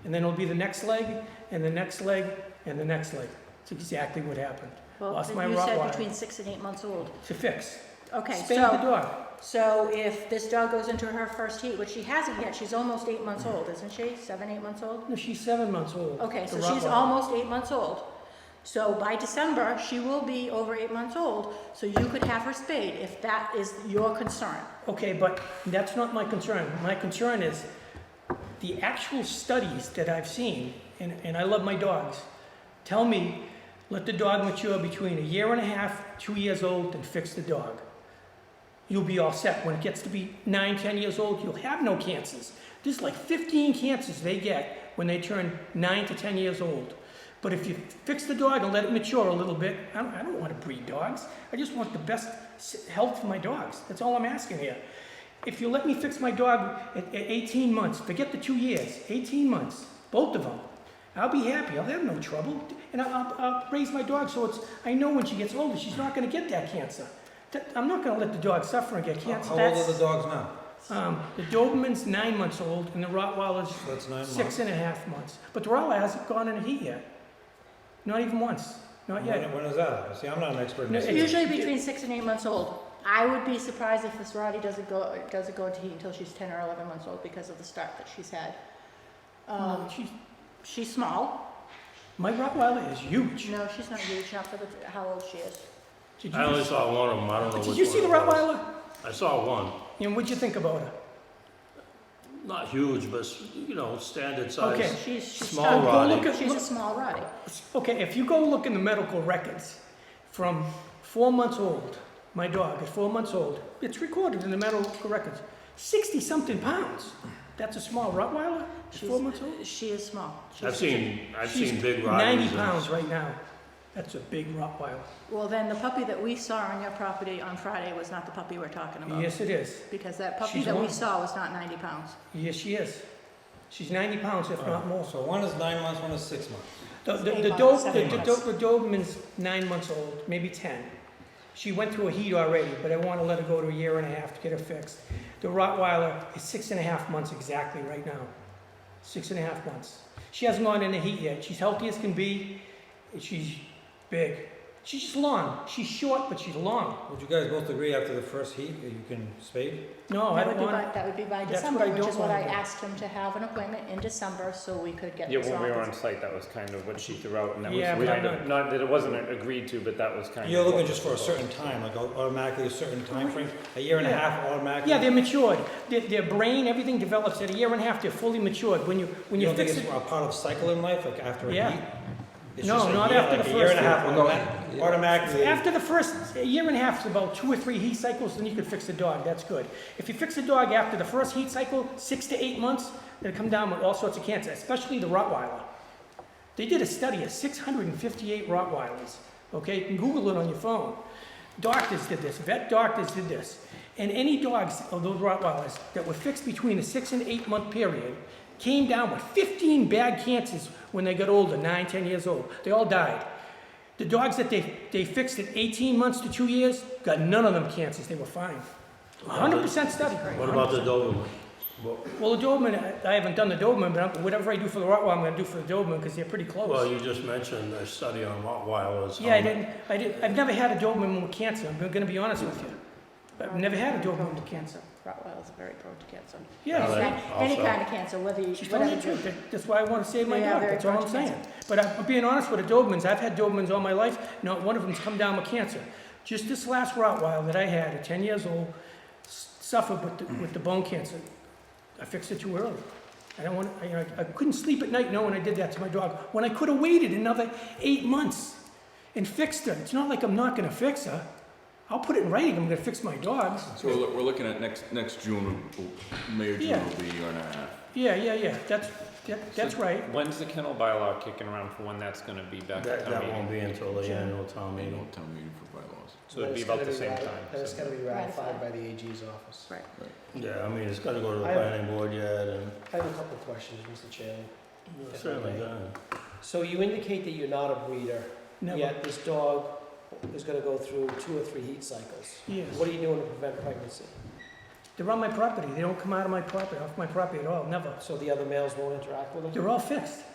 and then it'll be the next leg, and the next leg, and the next leg. It's exactly what happened, Well, Lost my you said Rottweiler. between six and eight months old. to fix. Okay, Spay the so, dog. so if this dog goes into her first heat, which she hasn't yet, she's almost eight months old, isn't she? Seven, eight months old? No, she's seven months old. Okay, so the she's Rottweiler. almost eight months old. So by December, she will be over eight months old, so you could have her spayed if that is your concern. Okay, but that's not my concern. My concern is the actual studies that I've seen, and, and I love my dogs, tell me let the dog mature between a year and a half, two years old, and fix the dog. You'll be all set. When it gets to be nine, ten years old, you'll have no cancers. There's like 15 cancers they get when they turn nine to 10 years old. But if you fix the dog and let it mature a little bit, I don't, I don't want to breed dogs. I just want the best s- health for my dogs. That's all I'm asking here. If you let me fix my dog at, at 18 months, forget the two years, 18 months, both of them, I'll be happy. I'll have no trouble. And I'll, I'll, I'll raise my dog so it's, I know when she gets older, she's not going to get that cancer. That, I'm not going to let the dog suffer and get How cancer. how old That's- are the dogs now? um, the Doberman's nine months old and the Rottweiler's So that's nine six months. and a half months. But the Rottweiler hasn't gone in a heat yet. Not even once. Not When yet. when is that? See, I'm not an expert in No, this. it- either. Usually between six and eight months old. I would be surprised if this Rottie doesn't go, doesn't go into heat until she's ten or eleven months old because of the start that she's had. Um, She's, she's small. Oh, my Rottweiler is huge. No, she's not huge, not for the, how old she is. Did I only you, saw one of them, I don't know which did you see the one it was. Rottweiler? I saw one, And what'd you think about her? not huge, but, you know, standard Okay. size. She's, she's Small tiny. Rottie. Go look at- She's a look- small Rottie. Okay, if you go look in the medical records, from four months old, my dog is four months old, it's recorded in the medical records, 60 something pounds. That's a small Rottweiler? It's She's- four months old? She is small. She's- I've seen, I've She's seen big Rotties. 90 and- pounds right now. That's a big Rottweiler. Well, then the puppy that we saw on your property on Friday was not the puppy we're talking about. Yes, it is. Because that puppy She's that we one. saw was not ninety pounds. Yes, she is. She's 90 pounds, if not more. So one is nine months, one is six months. The, the, Eight the, months, Dob- the, seven the, months. Do- the Doberman's nine months old, maybe 10. She went through a heat already, but I want to let her go to a year and a half to get her fixed. The Rottweiler is six and a half months exactly right now. Six and a half months. She hasn't gone in the heat yet. She's healthy as can be. and She's big. She's just long. She's short, but she's long. Would you guys both agree after the first heat that you can spade? No, Oh, I That would don't be want. by, that would be by that's what December, I which don't is what I wanna do. asked him to have an appointment in December so we could get Yeah, this when we were off. on site, that was kind of what she threw out, and that Yeah, was but kind I'm of, not that it wasn't agreed to, but that was kind of. You're what looking was just for a certain proposed. time, like au- automatically a certain time frame, a year and a Yeah. half automatically? Yeah, they're matured. Their, their brain, everything develops at a year and a half. They're fully matured. When you when You you, don't think fix it's it, a part of cycle in life, like after a Yeah. heat? It's No, just a not year, after like the A year and a first half heat. No, automa- yeah. automatically. after the first a year and a half is about two or three heat cycles, then you can fix the dog. That's good. If you fix the dog after the first heat cycle, six to eight months, they'll come down with all sorts of cancer, especially the Rottweiler. They did a study of 658 Rottweilers. Okay, you can Google it on your phone. Doctors did this, vet doctors did this. And any dogs of those Rottweilers that were fixed between a six and eight month period came down with 15 bad cancers when they got older, nine, 10 years old. They all died. The dogs that they, they fixed at 18 months to two years got none of them cancers. They were fine. 100% study. What about the Doberman? Well- Well, the Doberman, I I haven't done the Doberman, but I'm- whatever I do for the Rottweiler, I'm going to do for the Doberman because they're pretty close. Well, you just mentioned a study on Rottweilers. Yeah, I Um, didn't, I didn't, I've never had a Doberman with cancer, I'm gonna be honest with you. I've never had a Doberman Prone to with cancer. cancer. Rottweilers are very prone to cancer. Well, Yeah, they- Any- Any also- kind of cancer, whether you, she's telling whatever. the truth, That- that's why I wanna save my They are dog, very that's all I'm prone to saying. But I- I'm being honest with the Dobermans, I've had Dobermans all my life, not one of them's come down with cancer. Just this last Rottweiler that I had, at ten years old, s- suffered with, the- with the bone cancer. I fixed it too early. I don't want, I, I- I couldn't sleep at night knowing I did that to my dog, when I could've waited another eight months and fixed her. It's not like I'm not gonna fix her. I'll put it in writing, I'm gonna fix my dogs. So we're, loo- we're looking at next, next June, will- May or June Yeah. will be a year and a half. Yeah, yeah, yeah, that's, that, that's right. When's the kennel bylaw kicking around for when that's gonna be back at That, town that won't meeting? be until the annual town They meeting. don't tell me for bylaws. So it'd But be it's about gotta the same rati- time. But it's so- gotta be Ratified. ratified by the AG's office. Right. Yeah, I mean, it's gotta go to the I- planning board yet, and I have a couple of questions, Mr. Chairman. if I certainly, may. gonna- So you indicate that you're not a breeder, Never, yet this dog is gonna go through two or three heat cycles. yes. What are you doing to prevent pregnancy? They're on my property. They don't come out of my property, off my property at all, never. so the other males won't interact with them? They're all fixed.